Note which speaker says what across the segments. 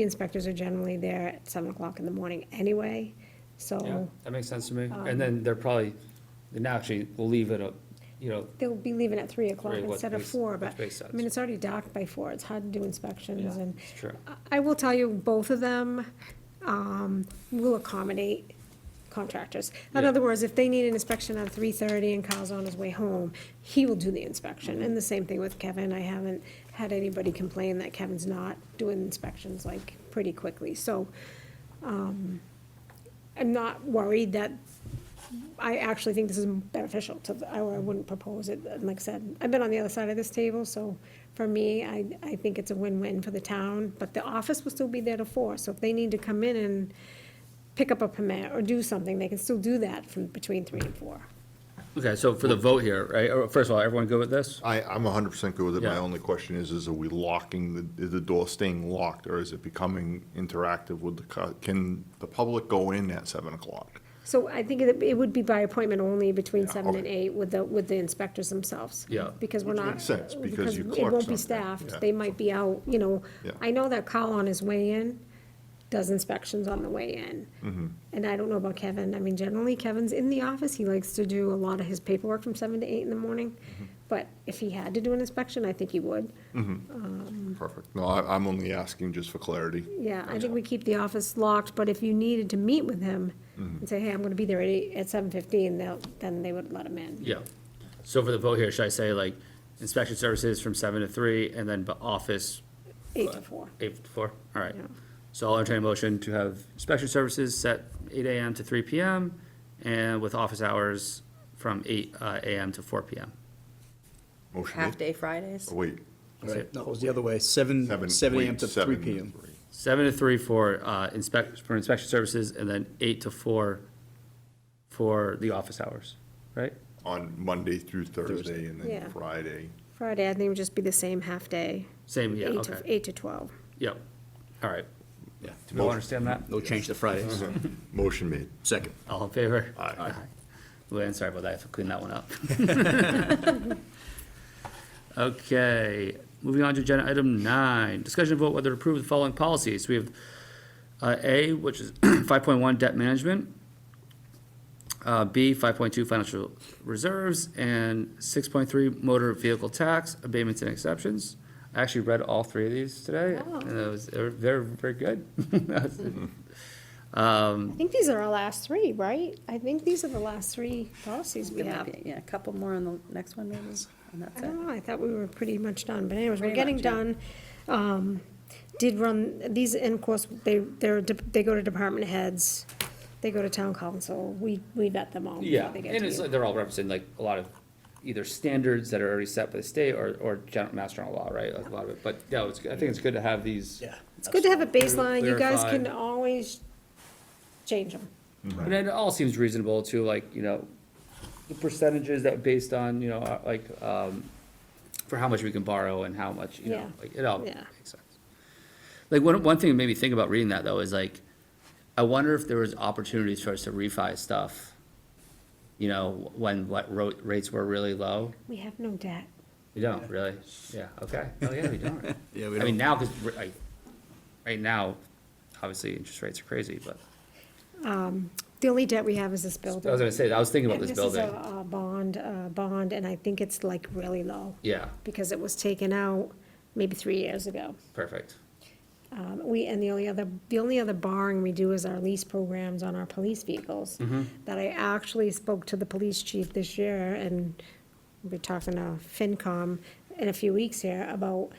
Speaker 1: The inspectors are generally there at seven o'clock in the morning anyway,
Speaker 2: Yeah,
Speaker 1: so
Speaker 2: that makes sense to me. And then they're probably, then actually, we'll leave it, up, you know,
Speaker 1: they'll be leaving at three o'clock
Speaker 2: Three, what
Speaker 1: instead of
Speaker 2: makes-
Speaker 1: four,
Speaker 2: which
Speaker 1: but,
Speaker 2: makes
Speaker 1: I
Speaker 2: sense.
Speaker 1: mean, it's already docked by four, it's hard to do inspections
Speaker 2: Yeah,
Speaker 1: and.
Speaker 2: it's true.
Speaker 1: I- I will tell you, both of them, um, will accommodate contractors. In
Speaker 2: Yeah.
Speaker 1: other words, if they need an inspection at three thirty and Kyle's on his way home, he will do the inspection. And the same thing with Kevin, I haven't had anybody complain that Kevin's not doing inspections like pretty quickly, so, um, I'm not worried that, I actually think this is beneficial to, the- I I wouldn't propose it, and like I said, I've been on the other side of this table, so for me, I, I think it's a win-win for the town, but the office will still be there to four, so if they need to come in and pick up a permit or do something, they can still do that from between three and four.
Speaker 2: Okay, so for the vote here, right, or first of all, everyone good with this?
Speaker 3: I, I'm hundred percent good with it. My
Speaker 2: Yeah.
Speaker 3: only question is, is are we locking, the, is the door staying locked or is it becoming interactive with the, cu- can the public go in at seven o'clock?
Speaker 1: So I think it, it would be by appointment only between
Speaker 3: Yeah,
Speaker 1: seven and
Speaker 3: okay.
Speaker 1: eight with the, with the inspectors themselves.
Speaker 2: Yeah.
Speaker 1: Because we're
Speaker 3: Which
Speaker 1: not.
Speaker 3: makes sense, because you
Speaker 1: It
Speaker 3: clerk
Speaker 1: won't be
Speaker 3: something,
Speaker 1: staffed,
Speaker 3: yeah.
Speaker 1: they might be out, you know.
Speaker 3: Yeah.
Speaker 1: I know that Kyle on his way in does inspections on the way in.
Speaker 3: Mm-hmm.
Speaker 1: And I don't know about Kevin, I mean, generally Kevin's in the office, he likes to do a lot of his paperwork from seven to eight in the morning.
Speaker 3: Mm-hmm.
Speaker 1: But if he had to do an inspection, I think he would.
Speaker 3: Perfect. No, I, I'm only asking just for clarity.
Speaker 1: Yeah, I think we keep the office locked, but if you needed to meet with him
Speaker 3: Mm-hmm.
Speaker 1: and say, hey, I'm gonna be there at eight, at seven fifteen, they'll, then they would let him in.
Speaker 2: Yeah. So for the vote here, should I say like inspection services from seven to three and then bu- office
Speaker 1: Eight to four.
Speaker 2: eight to four? All right.
Speaker 1: Yeah.
Speaker 2: So I'll entertain a motion to have inspection services set eight AM to three PM and with office hours from eight uh, AM to four PM.
Speaker 3: Motion made.
Speaker 4: half-day Fridays.
Speaker 3: Oh, Wait.
Speaker 2: That's it.
Speaker 5: No, it was the other way, seven, seven AM
Speaker 3: wait,
Speaker 5: to three
Speaker 3: seven to
Speaker 5: PM.
Speaker 3: three.
Speaker 2: Seven to three for uh, inspect, for inspection services, and then eight to four for the office hours, right?
Speaker 3: On Monday through Thursday and
Speaker 1: Yeah.
Speaker 3: then Friday.
Speaker 1: Friday, I think it would just be the same half-day.
Speaker 2: Same, yeah,
Speaker 1: Eight to,
Speaker 2: okay.
Speaker 1: eight to twelve.
Speaker 2: Yep, all right.
Speaker 5: Yeah.
Speaker 2: Do we all understand that?
Speaker 5: No change to Fridays.
Speaker 3: Motion made.
Speaker 5: Second.
Speaker 2: All in favor?
Speaker 3: Aye. Aye.
Speaker 2: Luann, sorry about that, I have to clean that one up. Okay, moving on to agenda item nine, discussion of vote whether to approve the following policies. We have uh, A, which is five point one debt management, uh, B, five point two financial reserves, and six point three motor vehicle tax abatements and exceptions. I actually read all three of these today,
Speaker 1: Wow.
Speaker 2: and it was, they're, they're very good.
Speaker 1: I think these are our last three, right? I think these are the last three policies we
Speaker 4: There might
Speaker 1: have.
Speaker 4: be, Yeah, a couple more on the next one maybe, and that's
Speaker 1: I
Speaker 4: it.
Speaker 1: don't know, I thought we were pretty much done, but anyways, we're
Speaker 4: Pretty
Speaker 1: getting
Speaker 4: much, yeah.
Speaker 1: done. Um, did run, these, and of course, they, they're, de- they go to department heads, they go to town council, we, we vet them all. before
Speaker 2: Yeah,
Speaker 1: they
Speaker 2: and
Speaker 1: get to
Speaker 2: it's,
Speaker 1: you.
Speaker 2: like they're all representing like a lot of either standards that are already set by the state or, or general mass general law, right? Like, A lot of it, but yeah, it's, I think it's good to have these.
Speaker 1: It's good to have a baseline, you guys
Speaker 2: Clarify.
Speaker 1: can always change them.
Speaker 2: But it all seems reasonable to like, you know, the percentages that based on, you know, uh, like, um, for how much we can borrow and how much, you
Speaker 1: Yeah.
Speaker 2: know, like, it all makes
Speaker 1: Yeah.
Speaker 2: sense. Like, one, one thing that made me think about reading that though is like, I wonder if there was opportunities for us to refi stuff, you know, when what ro- rates were really low.
Speaker 1: We have no debt.
Speaker 2: We don't, really? Yeah, okay. Oh, yeah, we don't.
Speaker 5: Yeah, we
Speaker 2: I mean,
Speaker 5: don't.
Speaker 2: now, because, like, right now, obviously, interest rates are crazy, but,
Speaker 1: The only debt we have is this building.
Speaker 2: I was gonna say, I was thinking about
Speaker 1: And
Speaker 2: this
Speaker 1: is
Speaker 2: building.
Speaker 1: a, a bond, uh bond, and I think it's like really low.
Speaker 2: Yeah,
Speaker 1: Because it was taken out maybe three years ago.
Speaker 2: perfect.
Speaker 1: Um, We, and the only other, the only other borrowing we do is our lease programs on our police vehicles.
Speaker 2: Mm-hmm.
Speaker 1: That I actually spoke to the police chief this year, and we're talking to FinCom in a few weeks here about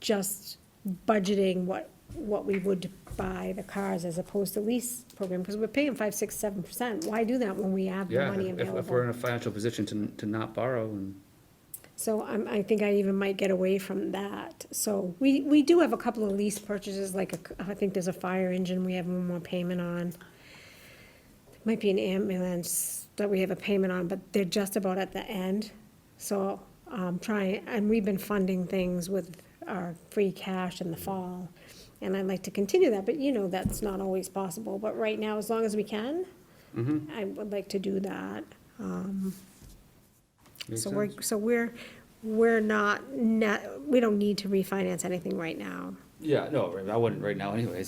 Speaker 1: just budgeting what, what we would buy the cars as opposed to lease program, because we're paying five, six, seven percent. Why do that when we have the
Speaker 2: Yeah,
Speaker 1: money
Speaker 2: if,
Speaker 1: available?
Speaker 2: if we're in a financial position to, to not borrow, and,
Speaker 1: So I'm, I think I even might get away from that. So we, we do have a couple of lease purchases, like a, I think there's a fire engine we have one more payment on. Might be an ambulance that we have a payment on, but they're just about at the end. So, um, trying, and we've been funding things with our free cash in the fall. And I'd like to continue that, but you know, that's not always possible. But right now, as long as we can, I would like to do that. um. So we're, so we're, we're not, ne- we don't need to refinance anything right now.
Speaker 2: Yeah, no, I wouldn't right now anyways.